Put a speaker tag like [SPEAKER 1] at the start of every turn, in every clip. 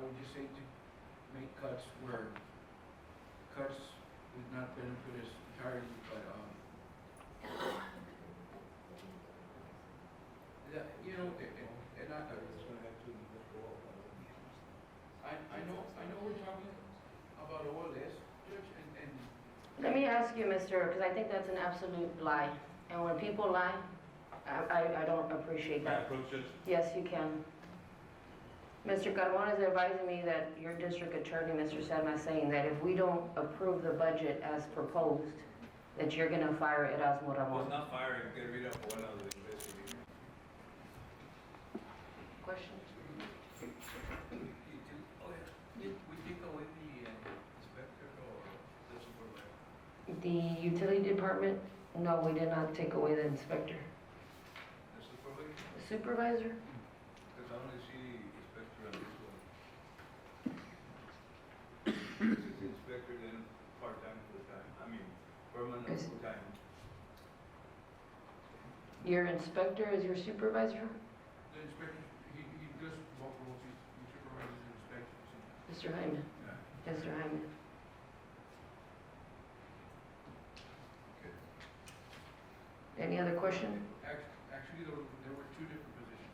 [SPEAKER 1] would just say to make cuts where cuts would not benefit us entirely, but, um, that, you know, and, and- and I, I, I know, I know we're talking about all this, Judge, and, and
[SPEAKER 2] Let me ask you, Mr., because I think that's an absolute lie. And when people lie, I, I, I don't appreciate
[SPEAKER 3] Can I
[SPEAKER 2] that.
[SPEAKER 3] approach this?
[SPEAKER 2] Yes, you can. Mr. Carmona is advising me that your district attorney, Mr. Sedma, is saying that if we don't approve the budget as proposed, that you're gonna fire Erasmo
[SPEAKER 3] Well, it's
[SPEAKER 2] Ramon.
[SPEAKER 3] not firing, get rid of one of the investigators.
[SPEAKER 2] Question?
[SPEAKER 4] You do, oh yeah, You- we take away the uh, inspector or the supervisor?
[SPEAKER 2] The utility department, no, we did not take away the inspector.
[SPEAKER 4] The supervisor,
[SPEAKER 2] Supervisor?
[SPEAKER 4] because I only see inspector on this one. This is inspector then part-time, full-time, I mean, permanent,
[SPEAKER 2] Is-
[SPEAKER 4] full-time.
[SPEAKER 2] Your inspector is your supervisor?
[SPEAKER 1] the inspector, he, he does walk roads, he he supervises the inspections. and-
[SPEAKER 2] Mr. Hyman? Mr. Hyman?
[SPEAKER 4] Okay.
[SPEAKER 2] Any other question?
[SPEAKER 1] Act- Actually, there were, there were two different positions.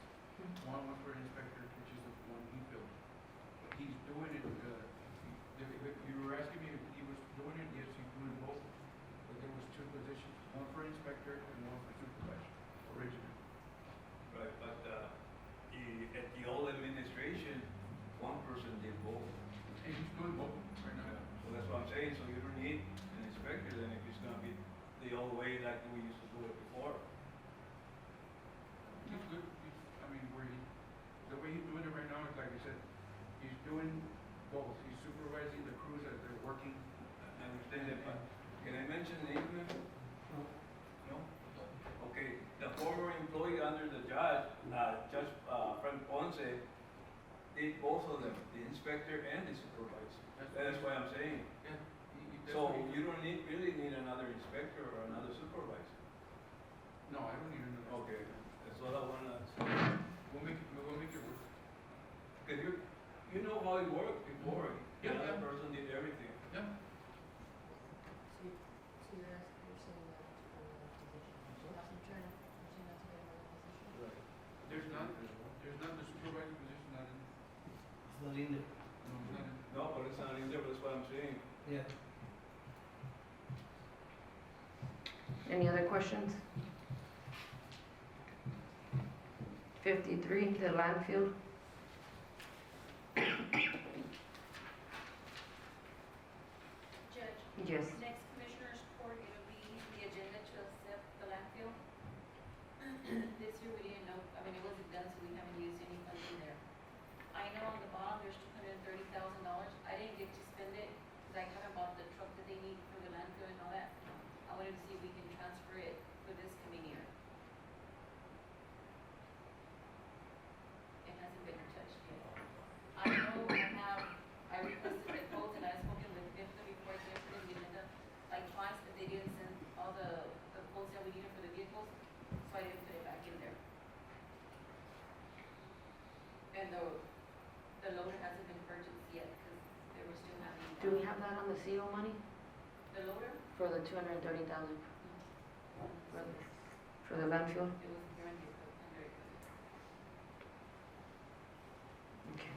[SPEAKER 1] One was for inspector, which is the one he filled. He's doing it, uh, if- if you were asking me if he was doing it, yes, he's doing both, but there was two positions, one for inspector and one for supervisor, originally.
[SPEAKER 4] Right, but uh, the- at the old administration, one person did both.
[SPEAKER 1] And he's doing both right now.
[SPEAKER 4] So that's what I'm saying, so you don't need an inspector then if it's gonna be the old way like we used to do it before.
[SPEAKER 1] He's good, he's, I mean, where he, the way he's doing it right now is, like I said, he's doing both, he's supervising the crews as they're working.
[SPEAKER 4] I understand that, but can I mention the name? No? Okay, the former employee under the judge, uh, Judge uh, Frank Ponce, did both of them, the inspector and the supervisor. That's why I'm saying,
[SPEAKER 1] Yeah, he- he- that's
[SPEAKER 4] so
[SPEAKER 1] what he-
[SPEAKER 4] you don't need, really need another inspector or another supervisor.
[SPEAKER 1] No, I don't even know.
[SPEAKER 4] Okay, that's what I wanna, say.
[SPEAKER 1] We'll make, it- we'll make it work.
[SPEAKER 4] cause you, you know how it worked before.
[SPEAKER 1] Yeah, yeah.
[SPEAKER 4] Another person did everything.
[SPEAKER 1] Yeah.
[SPEAKER 5] So you- so you're asking, you're saying that for the position, you're not
[SPEAKER 2] uh,
[SPEAKER 5] trying, you're saying not to get another position?
[SPEAKER 4] Right.
[SPEAKER 1] There's not, there's not the supervisor position, not in,
[SPEAKER 6] It's not in there.
[SPEAKER 1] no, it's not in.
[SPEAKER 4] No, but it's not in there, but that's what I'm saying.
[SPEAKER 6] Yeah.
[SPEAKER 2] Any other questions? 53, the landfill.
[SPEAKER 7] Judge,
[SPEAKER 2] Yes.
[SPEAKER 7] next commissioner's court, it'll be the agenda to accept the landfill. This year, we didn't know, I mean, it wasn't done, so we haven't used any funds in there. I know on the bottom, there's two hundred and thirty thousand dollars. I didn't get to spend it, because I haven't bought the truck that they need for the landfill and all that. I wanted to see if we can transfer it for this coming year. It hasn't been touched yet. I know I have I requested the quote and I've spoken with Vifta before, Jeffrey and Melinda, like twice, but they didn't send all the, the quotes that we needed for the vehicles, so I didn't put it back in there. And the, the loader hasn't been purchased yet, because they were still having.
[SPEAKER 2] Do we have that on the CO money
[SPEAKER 7] The loader?
[SPEAKER 2] for the 230,000 for the- for the landfill?
[SPEAKER 7] It was during the, under equipment.
[SPEAKER 2] Okay.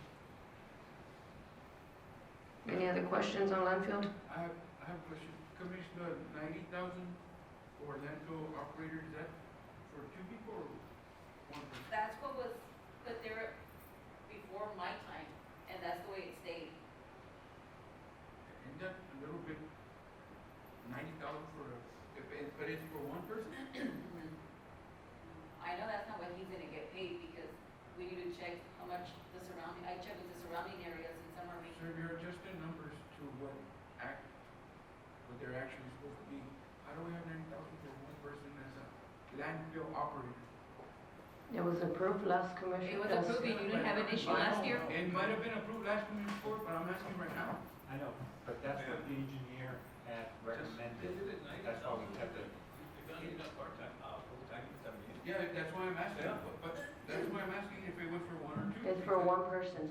[SPEAKER 2] Any other questions on landfill?
[SPEAKER 1] I have, I have a question. Commissioner, ninety thousand for landfill operator, is that for two people or one person?
[SPEAKER 7] That's what was put there before my time, and that's the way it stayed.
[SPEAKER 1] Isn't that a little bit, ninety thousand for, a- if, it- but it's for one person?
[SPEAKER 7] I know that's not what he's gonna get paid because we need to check how much the surrounding, I checked with the surrounding areas and some
[SPEAKER 1] So
[SPEAKER 7] are making.
[SPEAKER 1] if you're adjusting numbers to what act, what they're actually supposed to be, how do we have ninety thousand for one person as a landfill operator?
[SPEAKER 2] It was approved last commission.
[SPEAKER 7] It was
[SPEAKER 2] last-
[SPEAKER 7] approved, but you didn't have an issue last year.
[SPEAKER 1] It might have been approved last community court, but I'm asking right now.
[SPEAKER 8] I know, but that's what the engineer had recommended. That's why we kept it.
[SPEAKER 4] You're gonna need a part-time, uh, full-time, I mean.
[SPEAKER 1] Yeah, that's why I'm asking, but, but that's why I'm asking if it was for one or two.
[SPEAKER 2] It's for
[SPEAKER 1] because-
[SPEAKER 2] one person.